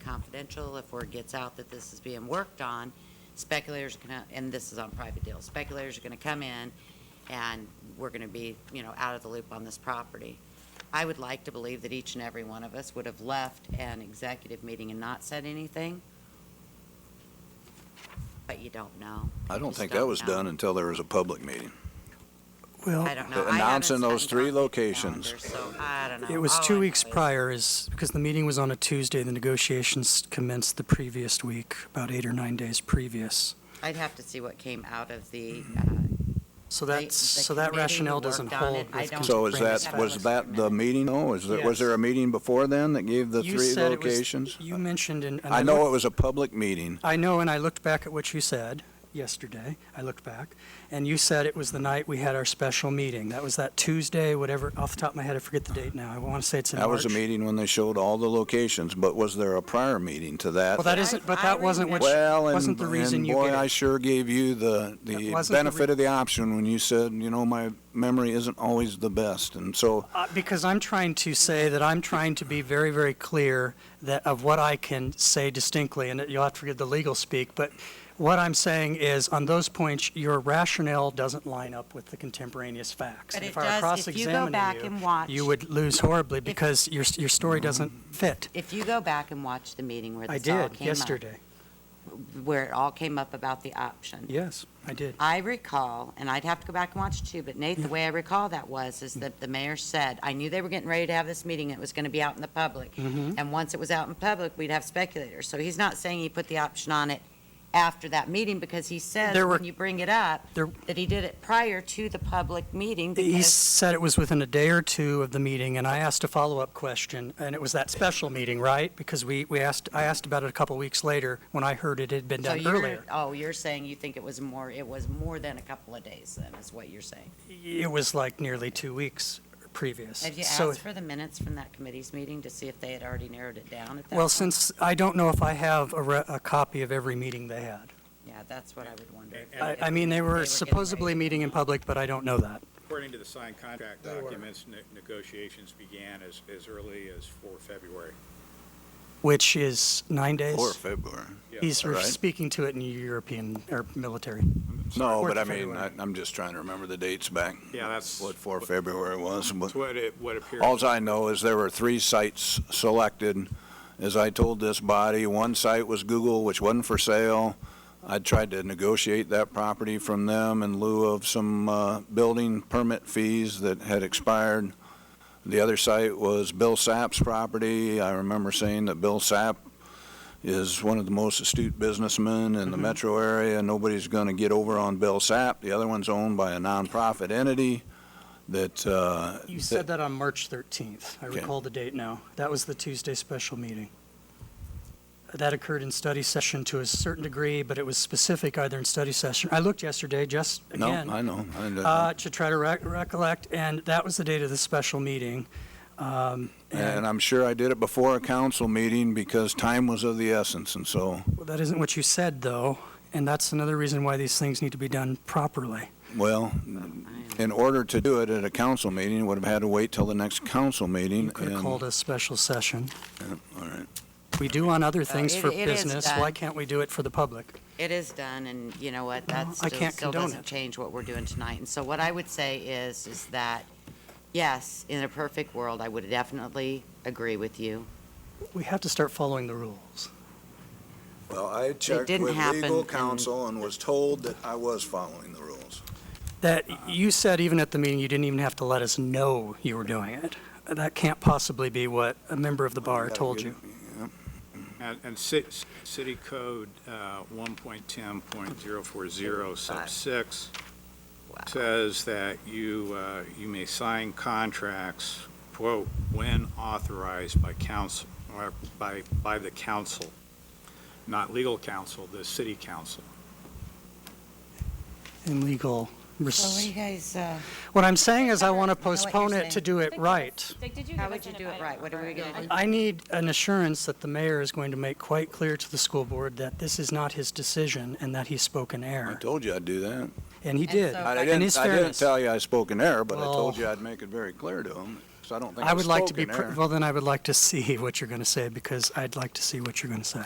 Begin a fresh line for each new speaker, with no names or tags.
confidential, if word gets out that this is being worked on, speculators are gonna, and this is on private deals, speculators are gonna come in and we're gonna be, you know, out of the loop on this property. I would like to believe that each and every one of us would have left an executive meeting and not said anything, but you don't know.
I
You
don't
just
think that was
know.
done until there was a public meeting.
Well,
I don't know. I haven't
Announcing those
sat down
three
with the
locations.
calendar, So I don't know.
It was
All I
two
know
weeks
is-
prior is, because the meeting was on a Tuesday, the negotiations commenced the previous week, about eight or nine days previous.
I'd have to see what came out of the, uh,
So
They-
that's,
the
so that
committee
rationale
worked on
doesn't
it.
hold.
I
with
don't-
So is
contemporaneous
that,
Brandon,
was
facts.
that the meeting, oh, is there, was
Yes.
there a meeting before then that gave the
You
three
said it was-
locations?
You mentioned in. and
I know
looked-
it was a public meeting,
I know, and I looked back at what you said yesterday. I looked back, and you said it was the night we had our special meeting. That was that Tuesday, whatever, off the top of my head, I forget the date now. I want to say it's in
that
March.
was a meeting when they showed all the locations, but was there a prior meeting to that?
Well, that isn't, but
I
that wasn't what,
remember-
Well,
wasn't
and,
the reason
and
you
boy,
gave.
I sure gave you the,
That
the
wasn't the
benefit of the option when you said, you know, my memory isn't always the best, and so,
Uh, Because I'm trying to say that I'm trying to be very, very clear that, of what I can say distinctly, and you'll have to forgive the legal speak, but what I'm saying is, on those points, your rationale doesn't line up with the contemporaneous facts.
But
And
it
if I were
does, if you go
cross-examining
back
you,
and watch.
You would lose horribly because your, your story doesn't fit.
If you go back and watch the meeting where
I
this all
did
came up,
yesterday.
where it all came up about the option.
Yes, I did.
I recall, and I'd have to go back and watch too, but Nate, the way I recall that was, is that the mayor said, I knew they were getting ready to have this meeting, it was gonna be out in the public.
Mm-hmm.
And once it was out in public, we'd have speculators. So he's not saying he put the option on it after that meeting, because he says,
There were-
when you bring it up,
There-
that he did it prior to the public meeting.
He
because-
said it was within a day or two of the meeting, and I asked a follow-up question, and it was that special meeting, right? Because we, we asked, I asked about it a couple weeks later, when I heard it had been
So
done
you're-
earlier.
Oh, you're saying you think it was more, it was more than a couple of days then, is what you're saying?
It was like nearly two weeks previous.
Have you
So,
asked for the minutes from that committee's meeting to see if they had already narrowed it down at that?
well,
point?
since, I don't know if I have a, re- a copy of every meeting they had.
Yeah, that's what I would wonder.
I, I mean, they were
getting
supposedly
ready.
meeting in public, but I don't know that.
According to the signed contract documents, ne- negotiations began as, as early as 4 February.
Which is nine days?
or February.
Yeah.
He's re-
Right.
speaking to it in European, or military.
No,
Fourth
but I
of
mean, I,
February.
I'm just trying to remember the dates back.
Yeah, that's-
What four February was, but
That's what it, what appears.
alls I know is there were three sites selected. As I told this body, one site was Google, which wasn't for sale. I tried to negotiate that property from them in lieu of some, uh, building permit fees that had expired. The other site was Bill Sapp's property. I remember saying that Bill Sapp is one of the most astute businessmen in the
Mm-hmm.
metro area. Nobody's going to get over on Bill Sapp. The other one's owned by a nonprofit entity that. uh,
You said that on March 13th. I
Okay.
recall the date now. That was the Tuesday special meeting. That occurred in study session to a certain degree, but it was specific either in study session. I looked yesterday, just
No,
again.
I know. I know.
uh, To try to rec- recollect, and that was the date of the special meeting. Um,
And I'm sure I did it before a council meeting because time was of the essence, and so,
well, That isn't what you said, though, and that's another reason why these things need to be done properly.
well, in order to do it at a council meeting, would have had to wait till the next council meeting.
You could have
and-
called a special session.
All right.
We do on other things
it-
for
it is
business.
done.
Why can't we do it for the public?
It is done, and you know what,
Well,
that
I
still,
can't
still
condone
doesn't
it.
change what we're doing tonight. And so what I would say is, is that, yes, in a perfect world, I would definitely agree with you.
We have to start following the rules.
Well, I checked
didn't
with
happen
legal
in-
counsel and was told that I was following the rules.
That you said even at the meeting, you didn't even have to let us know you were doing it. That can't possibly be what a member of the bar told you.
And, and ci- city code, uh, 1.10.040 sub 6 says that you, uh, you may sign contracts, quote, when authorized by council, or by, by the council, not legal council, the city council.
In legal, res-
guys, uh,
what I'm saying is I
Heather,
want to
I know what you're
postpone it to
saying.
do it
Did you give us-
right.
Did did you
How
give us
would you
an
do it
item
right? What are we
for-
gonna do?
I need an assurance that the mayor is going to make quite clear to the school board that this is not his decision and that he spoke in
I
error.
told you I'd do that.
And he
And
did.
so-
I
In
didn't,
Uh, his
I didn't
fairness-
tell you I spoke in error, but I
Well-
told you I'd make it very clear to him, because I don't think
I
I
would like
spoke
to be,
in
pr-
error.
well, then I would like to see what you're going to say because I'd like to see what you're going to say.